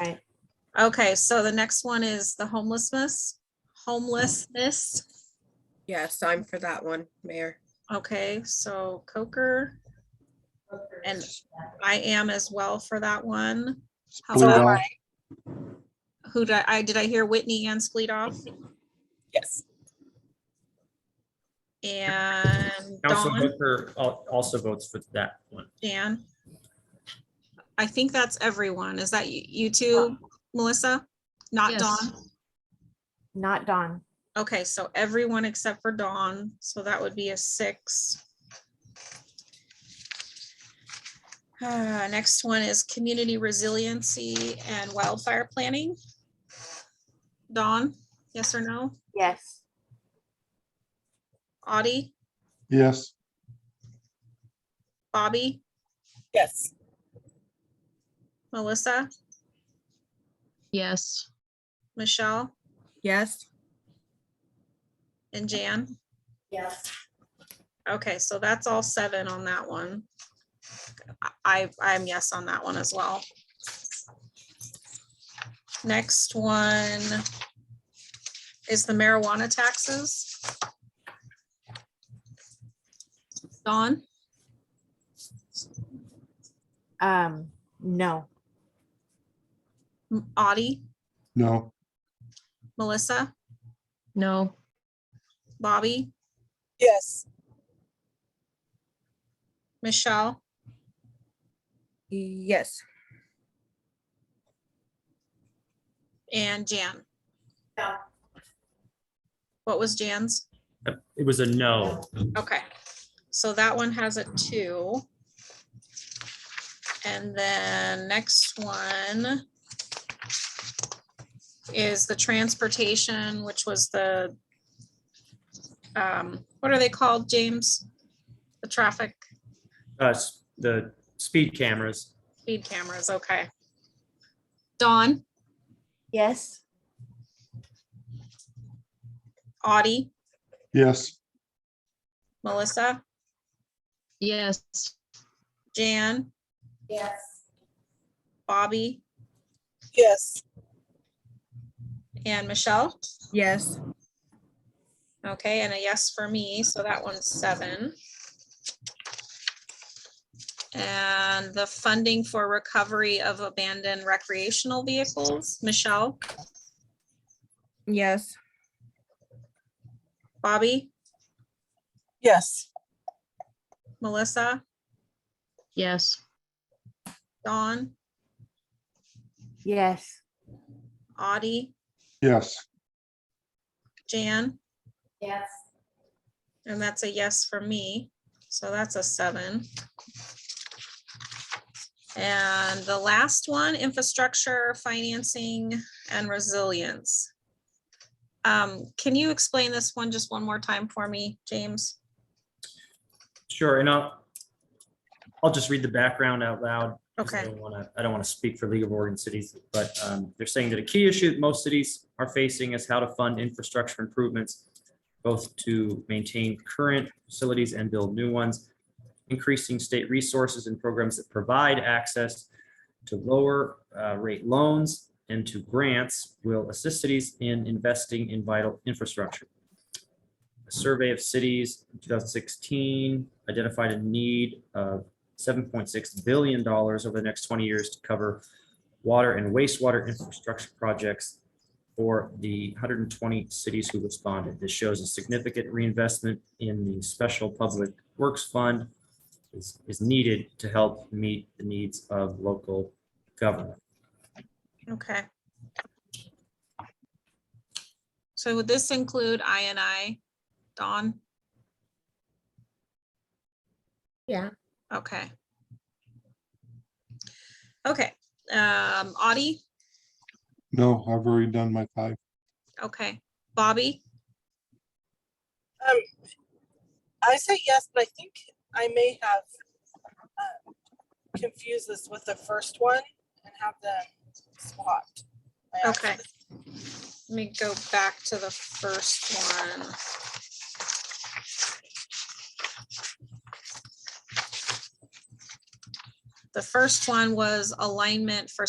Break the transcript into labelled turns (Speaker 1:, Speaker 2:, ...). Speaker 1: Right.
Speaker 2: Okay, so the next one is the homelessness, homelessness.
Speaker 3: Yes, I'm for that one, Mayor.
Speaker 2: Okay, so Coker. And I am as well for that one. How about-
Speaker 4: Plural.
Speaker 2: Who did I- I, did I hear Whitney and Spleedoff
Speaker 3: Yes.
Speaker 2: and
Speaker 5: Council
Speaker 2: Dawn,
Speaker 5: Booker al- also votes for that one.
Speaker 2: Dan? I think that's everyone. Is that you, you two, Melissa? Not
Speaker 6: Yes.
Speaker 2: Dawn?
Speaker 1: Not Dawn.
Speaker 2: Okay, so everyone except for Dawn, so that would be a six. Uh, next one is community resiliency and wildfire planning. Dawn, yes or no?
Speaker 1: Yes.
Speaker 2: Audie,
Speaker 4: Yes,
Speaker 2: Bobby,
Speaker 3: Yes.
Speaker 2: Melissa,
Speaker 6: Yes,
Speaker 2: Michelle,
Speaker 3: Yes.
Speaker 2: and Jan?
Speaker 1: Yes.
Speaker 2: Okay, so that's all seven on that one. I, I'm yes on that one as well. Next one is the marijuana taxes. Dawn,
Speaker 1: Um, no.
Speaker 2: Audie,
Speaker 4: no,
Speaker 2: Melissa,
Speaker 6: no,
Speaker 2: Bobby,
Speaker 3: Yes.
Speaker 2: Michelle,
Speaker 3: Yes.
Speaker 2: and Jan.
Speaker 1: No.
Speaker 2: What was Jan's?
Speaker 5: Uh, It was a no.
Speaker 2: Okay, so that one has a two. And then next one is the transportation, which was the, um, what are they called, James? The traffic
Speaker 5: Uh, s- the speed cameras,
Speaker 2: speed cameras, okay. Dawn,
Speaker 1: Yes.
Speaker 2: Audie,
Speaker 4: yes,
Speaker 2: Melissa,
Speaker 6: yes,
Speaker 2: Jan,
Speaker 1: Yes.
Speaker 2: Bobby,
Speaker 3: Yes.
Speaker 2: and Michelle.
Speaker 3: Yes.
Speaker 2: Okay, and a yes for me, so that one's seven. And the funding for recovery of abandoned recreational vehicles, Michelle,
Speaker 3: Yes.
Speaker 2: Bobby,
Speaker 3: Yes.
Speaker 2: Melissa,
Speaker 6: yes,
Speaker 2: Dawn,
Speaker 1: Yes.
Speaker 2: Audie,
Speaker 4: yes,
Speaker 2: Jan,
Speaker 1: Yes.
Speaker 2: and that's a yes for me, so that's a seven. And the last one, infrastructure, financing, and resilience. Um, can you explain this one just one more time for me, James?
Speaker 5: sure, and I'll, I'll just read the background out loud. because I
Speaker 2: Okay,
Speaker 5: don't wanna- I don't want to speak for League of Oregon Cities, but um, they're saying that a key issue that most cities are facing is how to fund infrastructure improvements, both to maintain current facilities and build new ones, increasing state resources and programs that provide access to lower uh, rate loans and to grants will assist cities in investing in vital infrastructure. A survey of cities in 2016 identified a need of $7.6 billion over the next 20 years to cover water and wastewater infrastructure projects for the 120 cities who responded. This shows a significant reinvestment in the Special Public Works Fund is, is needed to help meet the needs of local government.
Speaker 2: okay. So would this include I and I, Dawn?
Speaker 3: Yeah.
Speaker 2: Okay. Okay, um, Audie,
Speaker 4: no, I've already done my five.
Speaker 2: okay, Bobby,
Speaker 7: Um, I say yes, but I think I may have uh, confused this with the first one and have them swapped. by
Speaker 2: Okay.
Speaker 7: accident.
Speaker 2: let me go back to the first one. The first one was alignment for